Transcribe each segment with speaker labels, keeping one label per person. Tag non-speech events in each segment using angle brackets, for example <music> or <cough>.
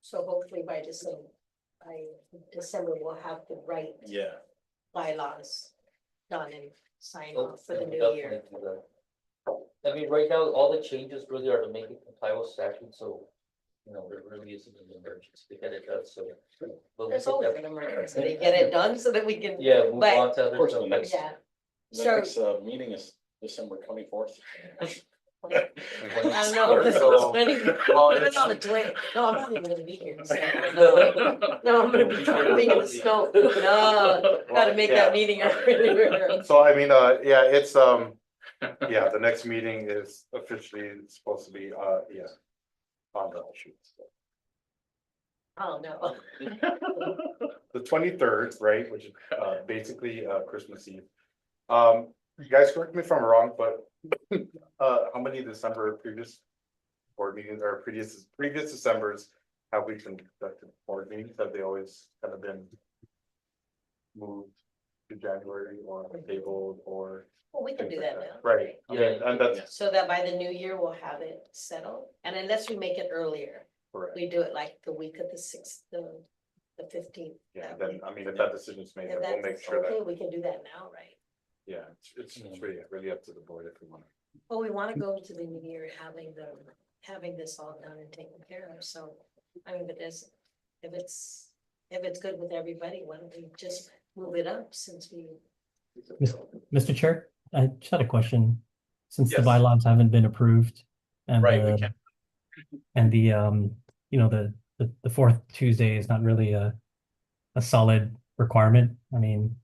Speaker 1: So hopefully by December, by December, we'll have the right
Speaker 2: Yeah.
Speaker 1: bylaws done and signed
Speaker 3: Oh,
Speaker 1: off for the
Speaker 3: we
Speaker 1: new year.
Speaker 3: definitely do that. I mean, right now, all the changes really are to make it comply with statute, so, you know, there really isn't an emergency to get it done, so. but we
Speaker 1: There's
Speaker 3: can
Speaker 1: always
Speaker 3: def-
Speaker 1: an emergency, they get it done so that we can,
Speaker 3: Yeah, move
Speaker 1: but-
Speaker 3: on to
Speaker 2: Of
Speaker 3: other
Speaker 2: course,
Speaker 3: stuff.
Speaker 2: the next,
Speaker 1: yeah.
Speaker 2: the
Speaker 1: So-
Speaker 2: next, uh, meeting is December twenty-fourth.
Speaker 1: I don't know. if this is <laughs> funny. Even on the twen- No, I'm not even gonna be here. so, No, No, I'm gonna be driving in the snow. No, gotta make that meeting earlier. <laughs>
Speaker 4: So I mean, uh, yeah, it's, um, yeah, the next meeting is officially supposed to be, uh, yeah. On the shoot,
Speaker 1: Oh, no.
Speaker 4: the twenty-third, right, which is, uh, basically, uh, Christmas Eve. Um, you guys correct me if I'm wrong, but, <laughs> uh, how many December previous? Board meetings or previous, previous Decembers have we conducted board meetings? Have they always kind of been? Moved to January or tabled or?
Speaker 1: Well, we can do that now.
Speaker 4: Right, okay,
Speaker 3: Yeah.
Speaker 4: and that's
Speaker 1: So that by the new year, we'll have it settled, and unless we make it earlier,
Speaker 4: correct.
Speaker 1: we do it like the week of the sixth, the, the fifteenth.
Speaker 4: Yeah, then, I mean, if that decision's made,
Speaker 1: If
Speaker 4: then we'll make
Speaker 1: that's
Speaker 4: sure
Speaker 1: okay,
Speaker 4: that,
Speaker 1: we can do that now, right?
Speaker 4: yeah, it's- it's, it's really, really up to the board if we want.
Speaker 1: Well, we wanna go into the new year having the, having this all done and taken care of, so, I mean, if it is, if it's, if it's good with everybody, why don't we just move it up since we.
Speaker 5: Mr. Chair, I just had a question. Since the
Speaker 4: Yes.
Speaker 5: bylaws haven't been approved and
Speaker 2: Right, we
Speaker 5: the,
Speaker 2: can't.
Speaker 5: and the, um, you know, the, the, the fourth Tuesday is not really a, a solid requirement. I mean,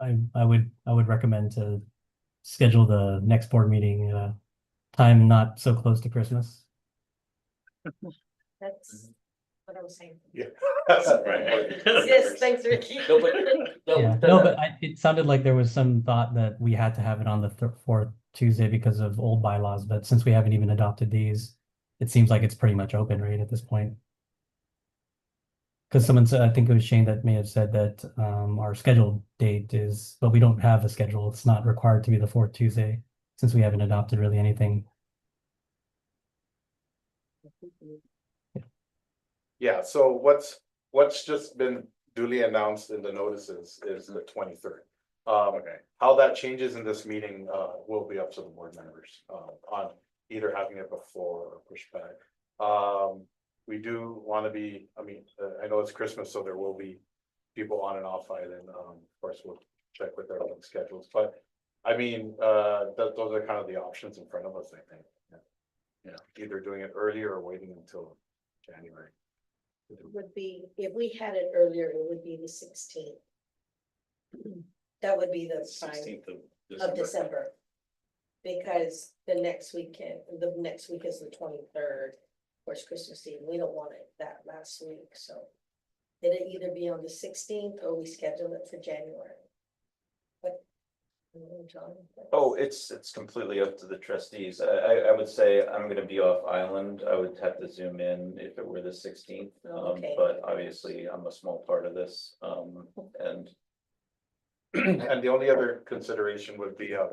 Speaker 5: I, I would, I would recommend to schedule the next board meeting, at a time not so close to Christmas.
Speaker 4: Mm-hmm.
Speaker 1: That's what I was
Speaker 4: <laughs>
Speaker 1: saying.
Speaker 4: to.
Speaker 1: Yes, thanks,
Speaker 4: <laughs>
Speaker 1: Ricky.
Speaker 3: No, but- No,
Speaker 5: Yeah,
Speaker 3: we've done
Speaker 5: no,
Speaker 3: that.
Speaker 5: but I, it sounded like there was some thought that we had to have it on the thir- fourth Tuesday because of old bylaws, but since we haven't even adopted these, it seems like it's pretty much open, right, at this point? Because someone said, I think it was Shane that may have said that, um, our scheduled date is, but we don't have a schedule. It's not required to be the fourth Tuesday, since we haven't adopted really anything.
Speaker 4: Yeah, so what's, what's just been duly announced in the notices is the twenty-third. Um,
Speaker 2: Okay.
Speaker 4: how that changes in this meeting, uh, will be up to the board members, uh, on either having it before or push back. Um, we do wanna be, I mean, uh, I know it's Christmas, so there will be people on and off island, um, of course, we'll check with their own schedules, but. I mean, uh, that, those are kind of the options in front of us, I think. Yeah, either doing it earlier or waiting until January.
Speaker 1: <laughs> Would be, if we had it earlier, it would be the sixteenth. <clears throat> That would be the time
Speaker 2: Sixteenth
Speaker 1: of December. Because the next weekend, the next week is the twenty-third, of course, Christmas Eve, we don't want it that last week, so. It'd either be on the sixteenth or we schedule it for January. But.
Speaker 6: Oh, it's, it's completely up to the trustees. I, I, I would say I'm gonna be off island. I would have to zoom in if it were the sixteenth.
Speaker 1: Oh,
Speaker 6: Um,
Speaker 1: okay.
Speaker 6: but obviously I'm a small part of this, um, and <clears throat>
Speaker 4: And the only other consideration would be, uh,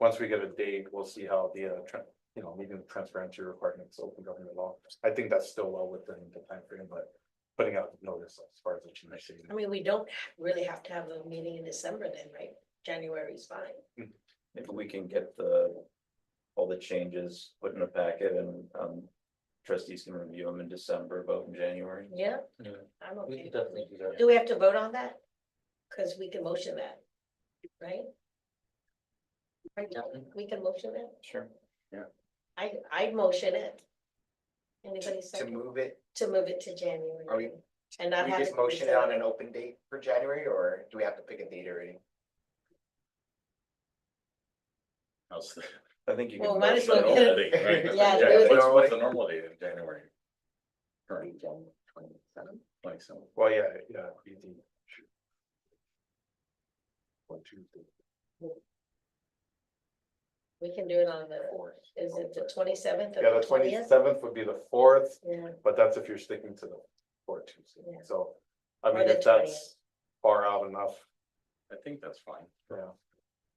Speaker 4: once we get a date, we'll see how the, uh, tran- you know, meeting the transparency requirements, open government law. I think that's still well within the timeframe, but putting out notice as far as the change.
Speaker 1: I mean, we don't really have to have a meeting in December then, right? January's fine.
Speaker 6: maybe we can get the. All the changes put in a packet and, um, trustees can review them in December, vote in January.
Speaker 1: Yeah,
Speaker 3: Yeah.
Speaker 1: I'm
Speaker 3: We
Speaker 1: okay.
Speaker 3: can definitely do that.
Speaker 1: Do we have to vote on that? Cause we can motion that, right? Right, Dalton? we can motion it,
Speaker 6: Sure.
Speaker 1: I, I'd motion it. Anybody
Speaker 7: to
Speaker 1: second,
Speaker 7: move it,
Speaker 1: to move it to
Speaker 7: Are
Speaker 1: January.
Speaker 7: we-
Speaker 1: And
Speaker 7: do
Speaker 1: not
Speaker 7: we
Speaker 1: have.
Speaker 7: just
Speaker 1: it be
Speaker 7: motion it
Speaker 1: set
Speaker 7: on
Speaker 1: up?
Speaker 7: an open date for January, or do we have to pick a date already?
Speaker 1: <laughs>
Speaker 6: I think you can.
Speaker 1: Well, might as
Speaker 6: motion
Speaker 1: well
Speaker 6: it
Speaker 1: get
Speaker 6: all.
Speaker 1: Yeah, do it.
Speaker 2: What's, what's the normal date in January? Current, like, so,
Speaker 4: Well, yeah, yeah. we do. One, two, three,
Speaker 1: We can do it on the,
Speaker 4: four.
Speaker 1: is it the twenty-seventh
Speaker 4: Yeah,
Speaker 1: or
Speaker 4: the
Speaker 1: the twentieth?
Speaker 4: twenty-seventh would be the fourth,
Speaker 1: Yeah,
Speaker 4: but that's if you're sticking to the four Tuesday,
Speaker 1: Yeah.
Speaker 4: so. I
Speaker 1: Or
Speaker 4: mean,
Speaker 1: the
Speaker 4: if that's far out enough,
Speaker 2: I think that's fine.
Speaker 4: yeah,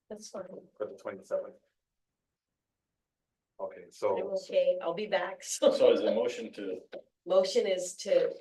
Speaker 1: that's fine,
Speaker 4: for the twenty-seventh. Okay,
Speaker 1: I'm
Speaker 4: so.
Speaker 7: Oh.
Speaker 1: okay, I'll be back, <laughs>
Speaker 2: So
Speaker 1: so,
Speaker 2: is the motion to
Speaker 1: motion is to